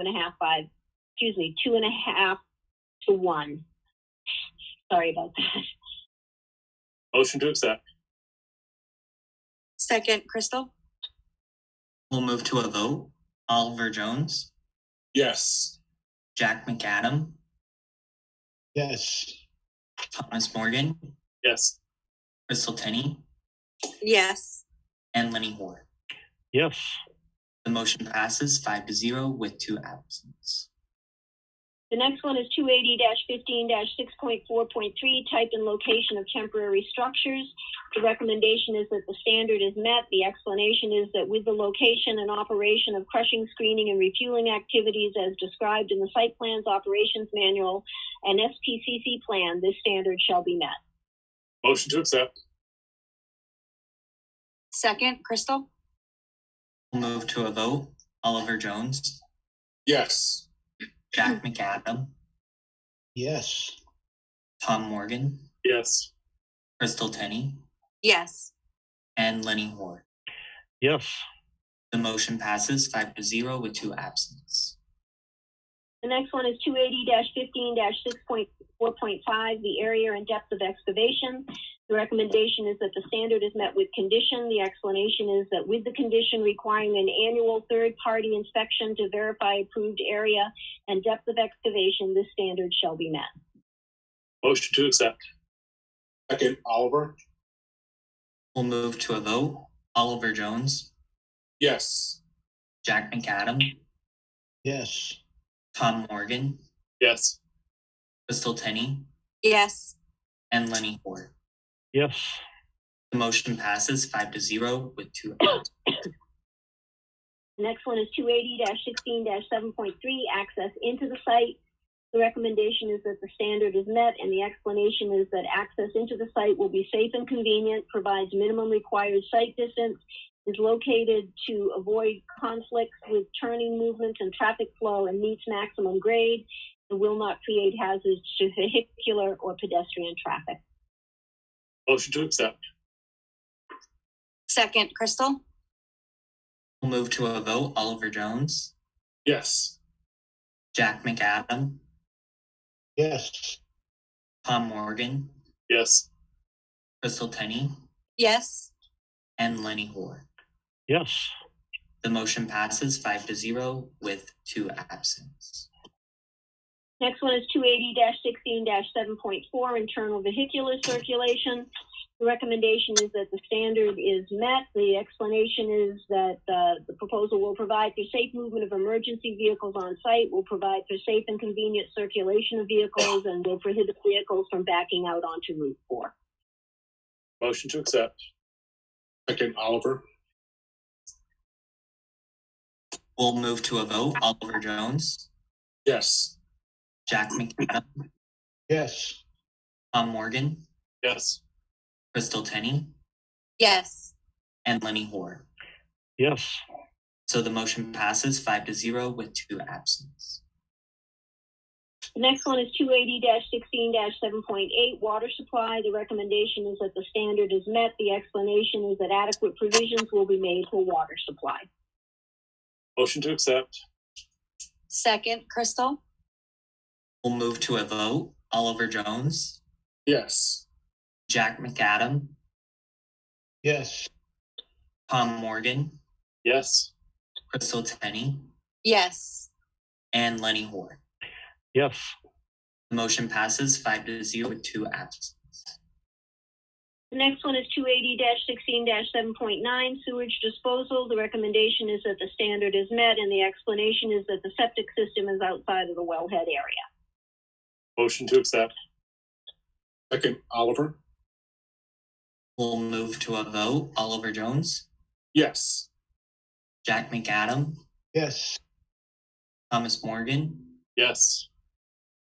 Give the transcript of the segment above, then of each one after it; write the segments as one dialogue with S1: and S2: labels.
S1: and a half five, excuse me, two and a half to one. Sorry about that.
S2: Motion to accept.
S3: Second, Crystal?
S4: We'll move to a vote. Oliver Jones,
S2: Yes.
S4: Jack McAdam,
S5: Yes.
S4: Thomas Morgan,
S2: Yes.
S4: Crystal Tenney,
S3: Yes.
S4: and Lenny Hoare.
S5: Yes.
S4: The motion passes five to zero with two absents.
S1: The next one is two eighty fifteen six point four point three, type and location of temporary structures. The recommendation is that the standard is met. The explanation is that with the location and operation of crushing, screening, and refueling activities as described in the site plans, operations manual, and SPCC plan, this standard shall be met.
S2: Motion to accept.
S3: Second, Crystal?
S4: We'll move to a vote. Oliver Jones,
S2: Yes.
S4: Jack McAdam,
S5: Yes.
S4: Tom Morgan,
S2: Yes.
S4: Crystal Tenney,
S3: Yes.
S4: and Lenny Hoare.
S5: Yes.
S4: The motion passes five to zero with two absents.
S1: The next one is two eighty fifteen six point four point five, the area and depth of excavation. The recommendation is that the standard is met with condition. The explanation is that with the condition requiring an annual third-party inspection to verify approved area and depth of excavation, this standard shall be met.
S2: Motion to accept. Second, Oliver.
S4: We'll move to a vote. Oliver Jones,
S2: Yes.
S4: Jack McAdam,
S5: Yes.
S4: Tom Morgan,
S2: Yes.
S4: Crystal Tenney,
S3: Yes.
S4: and Lenny Hoare.
S5: Yes.
S4: The motion passes five to zero with two absent.
S1: The next one is two eighty sixteen seven point three, access into the site. The recommendation is that the standard is met and the explanation is that access into the site will be safe and convenient, provides minimum required site distance, is located to avoid conflicts with turning movements and traffic flow and meets maximum grade and will not create hazards to vehicular or pedestrian traffic.
S2: Motion to accept.
S3: Second, Crystal?
S4: We'll move to a vote. Oliver Jones,
S2: Yes.
S4: Jack McAdam,
S5: Yes.
S4: Tom Morgan,
S2: Yes.
S4: Crystal Tenney,
S3: Yes.
S4: and Lenny Hoare.
S5: Yes.
S4: The motion passes five to zero with two absents.
S1: Next one is two eighty sixteen seven point four, internal vehicular circulation. The recommendation is that the standard is met. The explanation is that uh, the proposal will provide for safe movement of emergency vehicles on site, will provide for safe and convenient circulation of vehicles, and will prohibit vehicles from backing out onto Route Four.
S2: Motion to accept. Second, Oliver.
S4: We'll move to a vote. Oliver Jones,
S2: Yes.
S4: Jack McAdam,
S5: Yes.
S4: Tom Morgan,
S2: Yes.
S4: Crystal Tenney,
S3: Yes.
S4: and Lenny Hoare.
S5: Yes.
S4: So the motion passes five to zero with two absents.
S1: The next one is two eighty sixteen seven point eight, water supply. The recommendation is that the standard is met. The explanation is that adequate provisions will be made for water supply.
S2: Motion to accept.
S3: Second, Crystal?
S4: We'll move to a vote. Oliver Jones,
S2: Yes.
S4: Jack McAdam,
S5: Yes.
S4: Tom Morgan,
S2: Yes.
S4: Crystal Tenney,
S3: Yes.
S4: and Lenny Hoare.
S5: Yes.
S4: The motion passes five to zero with two absent.
S1: The next one is two eighty sixteen seven point nine sewage disposal. The recommendation is that the standard is met and the explanation is that the septic system is outside of the wellhead area.
S2: Motion to accept. Second, Oliver.
S4: We'll move to a vote. Oliver Jones,
S2: Yes.
S4: Jack McAdam,
S5: Yes.
S4: Thomas Morgan,
S2: Yes.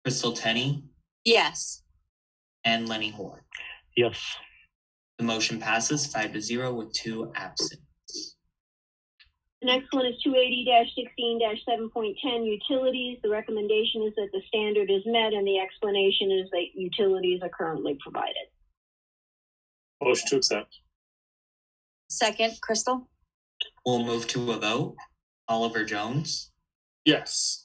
S4: Crystal Tenney,
S3: Yes.
S4: and Lenny Hoare.
S5: Yes.
S4: The motion passes five to zero with two absent.
S1: The next one is two eighty sixteen seven point ten utilities. The recommendation is that the standard is met and the explanation is that utilities are currently provided.
S2: Motion to accept.
S3: Second, Crystal?
S4: We'll move to a vote. Oliver Jones,
S2: Yes.